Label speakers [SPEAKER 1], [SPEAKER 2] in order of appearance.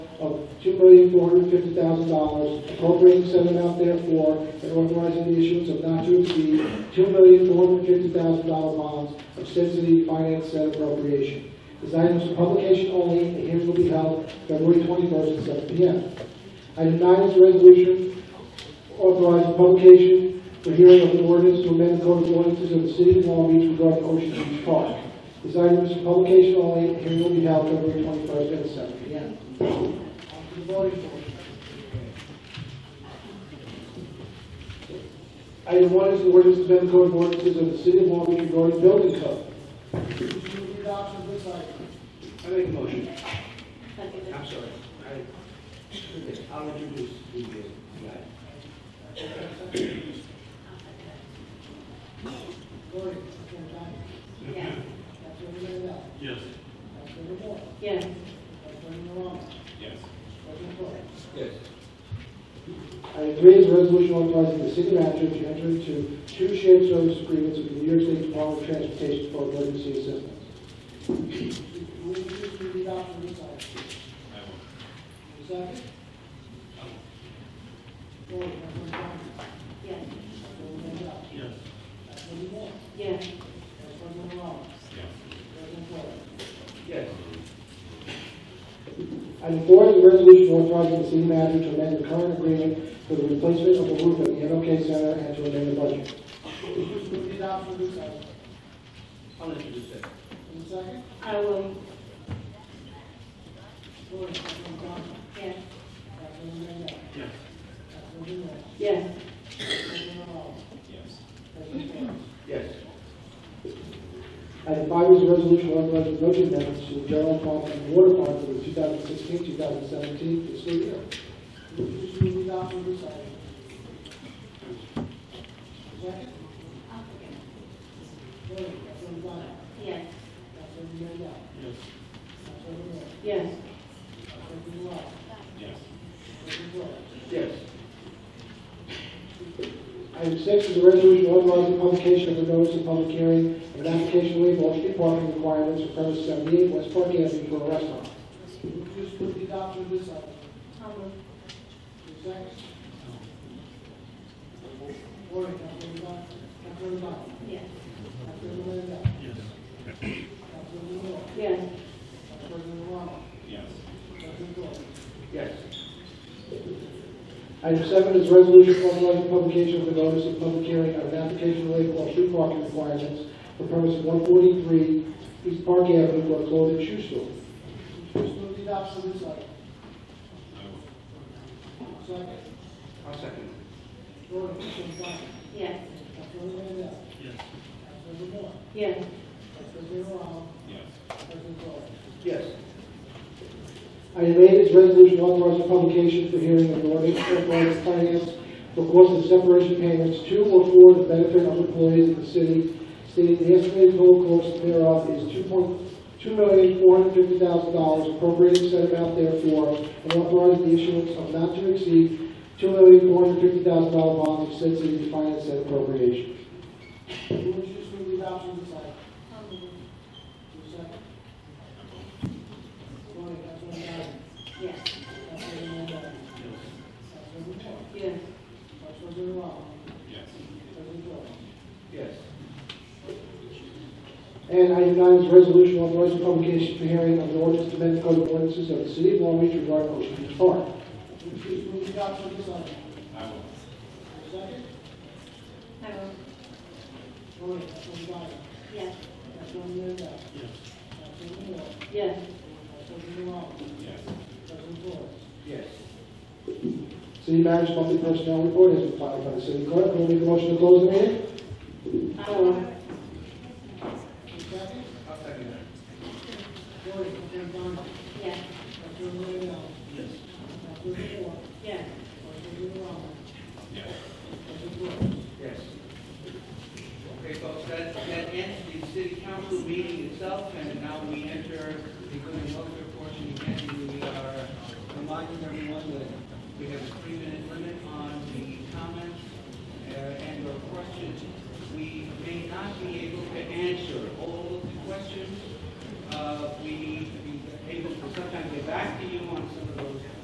[SPEAKER 1] of two million four hundred fifty thousand dollars, appropriating said amount therefore, and authorizing the issuance of not to exceed two million four hundred fifty thousand dollar bonds of said city to finance said appropriation. This item is for publication only, and hearings will be held February twenty-first at seven P M. Item nine is a resolution authorizing publication for hearing of an ordinance to amend the code of ordinances of the city of Long Beach regarding Ocean Beach Park. This item is for publication only, and hearing will be held February twenty-first at seven P M. Item one is the ordinance to amend the code of ordinances of the city of Long Beach regarding building code.
[SPEAKER 2] I make a motion.
[SPEAKER 3] Second.
[SPEAKER 2] I'm sorry. I- I'll introduce the, uh, the item.
[SPEAKER 3] Yes. Yes.
[SPEAKER 4] Yes. Yes.
[SPEAKER 2] Yes.
[SPEAKER 1] Item three is a resolution authorizing the city manager to enter into two shared service agreements with the New York State Department of Transportation for emergency assistance.
[SPEAKER 4] I will.
[SPEAKER 3] Yes.
[SPEAKER 4] Yes.
[SPEAKER 3] Yes.
[SPEAKER 4] Yes.
[SPEAKER 2] Yes.
[SPEAKER 1] Item four is a resolution authorizing the city manager to amend the current agreement for the replacement of the roof at the NOK Center and to amend the budget.
[SPEAKER 2] I'll introduce that.
[SPEAKER 3] I will. Yes.
[SPEAKER 4] Yes.
[SPEAKER 3] Yes.
[SPEAKER 4] Yes.
[SPEAKER 2] Yes.
[SPEAKER 1] Item five is a resolution authorizing budget amendments to the general fund and water fund for the 2016-2017 fiscal year.
[SPEAKER 3] Yes.
[SPEAKER 4] Yes.
[SPEAKER 3] Yes.
[SPEAKER 4] Yes.
[SPEAKER 2] Yes.
[SPEAKER 1] Item six is a resolution authorizing publication of the notice of public hearing of an application to waive all street parking requirements for premise 78 West Park Avenue for a restaurant.
[SPEAKER 3] I will. Yes.
[SPEAKER 4] Yes.
[SPEAKER 3] Yes.
[SPEAKER 4] Yes.
[SPEAKER 2] Yes.
[SPEAKER 1] Item seven is a resolution authorizing publication of the notice of public hearing of an application to waive all street parking requirements for premise 143 East Park Avenue for a clothing shoe store.
[SPEAKER 4] I will.
[SPEAKER 2] I'll second.
[SPEAKER 3] Yes.
[SPEAKER 4] Yes.
[SPEAKER 3] Yes.
[SPEAKER 4] Yes.
[SPEAKER 2] Yes.
[SPEAKER 1] Item eight is resolution authorizing publication for hearing of an ordinance authorizing finance for cost of separation payments to or for the benefit of employees of the city, stating the estimated total cost thereof is two point, two million, four hundred fifty thousand dollars, appropriating said amount therefore, and authorizing the issuance of not to exceed two million, four hundred fifty thousand dollar bonds of said city to finance said appropriation.
[SPEAKER 3] Yes. Yes.
[SPEAKER 4] Yes.
[SPEAKER 2] Yes.
[SPEAKER 1] And item nine is resolution authorizing publication for hearing of an ordinance to amend the code of ordinances of the city of Long Beach regarding Ocean Beach Park.
[SPEAKER 4] I will.
[SPEAKER 3] I will. Yes.
[SPEAKER 4] Yes.
[SPEAKER 3] Yes.
[SPEAKER 4] Yes.
[SPEAKER 2] Yes.
[SPEAKER 1] City manager's monthly personnel report has been filed by the city clerk. Will make a motion to close the meeting?
[SPEAKER 3] I will.
[SPEAKER 2] I'll second that.
[SPEAKER 3] Yes.
[SPEAKER 4] Yes.
[SPEAKER 3] Yes.
[SPEAKER 4] Yes.
[SPEAKER 2] Yes. Okay, folks, that, that ends the city council meeting itself, and now we enter the good and welfare portion. Again, we are reminding everyone that we have a three-minute limit on the comments uh, and or questions. We may not be able to answer all of the questions. Uh, we may be able to sometimes get back to you on some of those